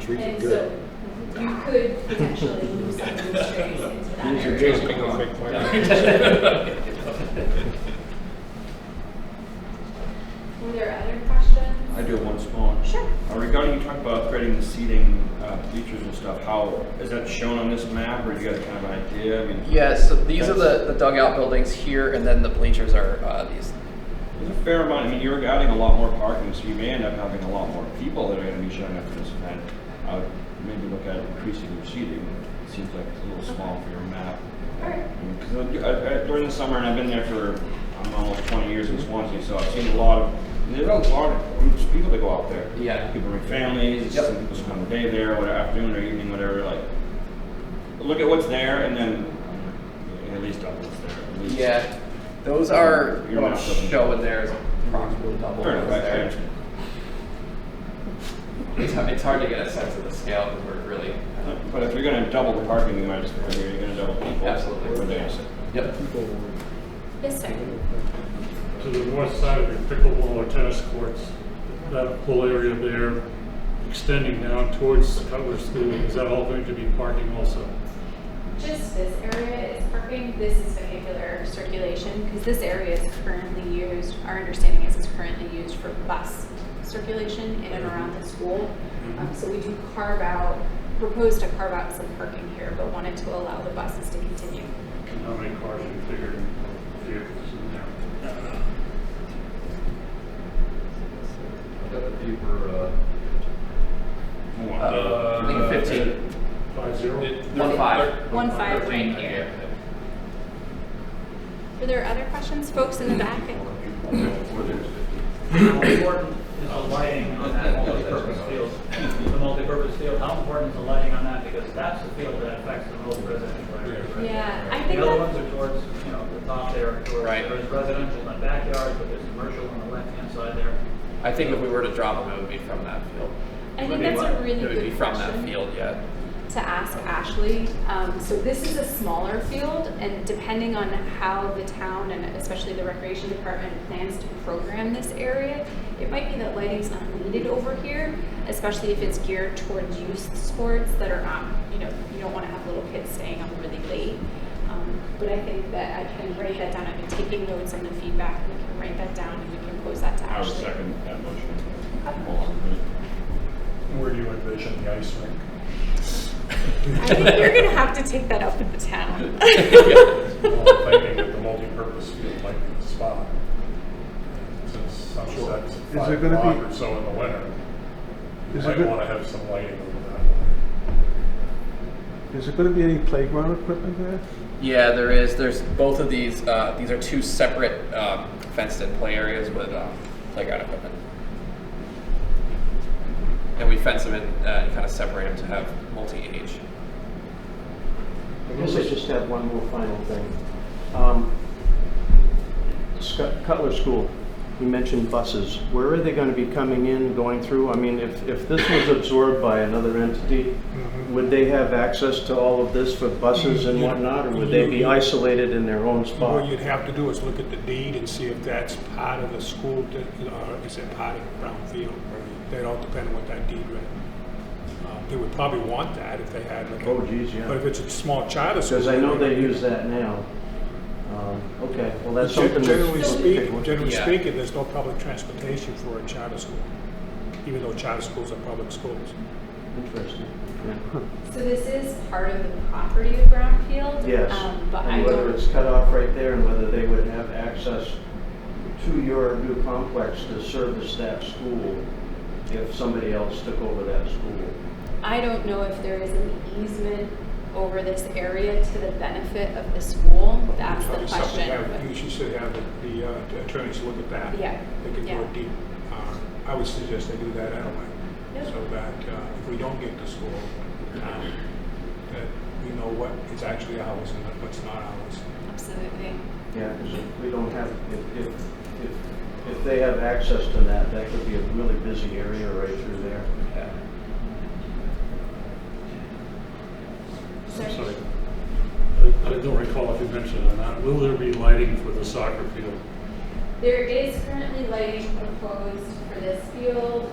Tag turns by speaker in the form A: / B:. A: trees are
B: Um, And
A: good.
B: so you could potentially move some of those trees into that
C: These are
B: area.
C: just gonna fake
B: Were there other questions?
D: I do have one small one.
B: Sure.
D: Uh, Regarding, you talked about creating the seating uh, features and stuff, how, is that shown on this map, or do you guys kind of an idea? I mean, is
E: Yeah, so these are the, the dugout buildings here, and then the bleachers are uh, these.
D: a fair amount, I mean, you're adding a lot more parking, so you may end up having a lot more people that are gonna be showing up for this event. I would maybe look at increasing your seating, it seems like it's a little small for your map.
B: Alright.
D: Because during the summer, and I've been there for I'm almost 20 years in Swansea, so I've seen a lot of. and There's a lot of groups of people that go out there.
E: Yeah.
D: People bring families.
E: Yep.
D: Some people spend the day there, whatever afternoon or evening, whatever. Like, look at what's there, and then um, at least double what's there. At least.
E: Yeah, those are
D: Your
E: what I'm
D: map doesn't-
E: showing there is approximately double
D: Fair
E: what's
D: enough. I- I
E: there.
D: understand.
E: It's, it's hard to get a sense of the scale because we're really.
D: But if you're going to double the parking, you might as well. You're going to double people.
E: Absolutely.
D: Or they're gonna sit.
E: Yep.
A: People
B: Yes, sir.
F: to the north side of your pickleball or tennis courts, that whole area there extending down towards Cutler School, is that all going to be parking also?
B: Just this area is parking, this is vehicular circulation, because this area is currently used, our understanding is it's currently used for bus circulation in and around the school. Um, so we do carve out, propose to carve out some parking here, but wanted to allow the buses to continue.
F: And how many cars you figure vehicles in there?
G: Got the paper, uh,
D: Move on.
E: Uh, I think
G: Uh,
E: 15.
F: Five zero?
E: One five.
B: One five right
G: thirteen,
B: here.
G: yeah.
B: Were there other questions, folks in the back? I-
G: Before there's fifteen.
H: How important is the lighting on that multipurpose field? The multipurpose field, how important is the lighting on that? Because that's the field that affects the most residential area. right?
B: Yeah, I think
H: The other
B: that,
H: ones are towards, you know, the top there, towards,
E: Right.
H: there's residential in the backyard, but there's commercial on the left-hand side there.
E: I think if we were to drop them, it would be from that field.
B: I
H: would
B: think
H: be
B: that's a
H: what?
B: really
E: it would be
B: good
E: from that
B: question
E: field, yeah.
B: to ask Ashley. Um, so this is a smaller field and depending on how the town and especially the recreation department plans to program this area, it might be that lighting's not needed over here, especially if it's geared towards youth sports that are not, you know, you don't want to have little kids staying up really late. Um, But I think that I can write that down. I've been taking notes on the feedback. We can write that down and we can post that to
D: I would
B: Ashley.
D: second that motion.
B: Okay.
D: Hold on a minute.
A: Where do you envision the ice rink?
B: I think you're gonna have to take that up with the town.
A: Well, I'm thinking that the multipurpose field might be the spot. Since sunset's at
C: there
A: five
C: gonna
A: o'clock
C: be-
A: or so in the winter, you
C: Is there
A: might
C: go-
A: wanna have some lighting over that way.
C: Is there gonna be any playground equipment there?
E: Yeah, there is. There's both of these. Uh, these are two separate um, fenced-in play areas with um, playground equipment, and we fence them in uh, and kind of separate them to have multi-age.
I: I guess I just have one more final thing. Um, Scut- Cutler School, you mentioned buses. Where are they going to be coming in, going through? I mean, if, if this was absorbed by another entity,
J: Mm-hmm.
I: would they have access to all of this for buses and whatnot? Or would they be isolated in their own
J: What
I: spot?
J: Mm-hmm. you'd have to do is look at the deed and see if that's part of the school, di- or is it part of Brownfield? That all depend on what that deed read. Uh, They would probably want that if they had like. a-
I: Oh, geez, yeah.
J: But if it's a small charter school.
I: Because I know they
J: would-
I: use that now. Um, Okay, well, that's
J: Gen-
I: something. that's-
J: Generally speaking, generally
E: Yeah.
J: speaking, there's no public transportation for a charter school, even though charter schools are public schools.
I: Interesting. yeah.
B: So this is part of the property of Brownfield?
I: Yes.
B: um, But I
I: And whether
B: don't,
I: it's cut off right there and whether they would have access to your new complex to service that school if somebody else took over that school.
B: I don't know if there is an easement over this area to the benefit of the school. That's the
J: Probably something that You
B: question.
J: should- should have the- the uh, attorneys look at that.
B: Yeah,
J: They can
B: yeah.
J: do a deep, uh, I would suggest they do that anyway.
B: Yep.
J: So that uh, if we don't get the school, um, that we know what is actually ours and what's not ours.
B: Absolutely.
I: Yeah, because if we don't have, if, if, if, if they have access to that, that could be a really busy area right through there.
E: Yeah.
B: Is there-
F: I'm sorry. I- I don't recall if you mentioned it or not. Will there be lighting for the soccer field?
B: There is currently lighting proposed for this field.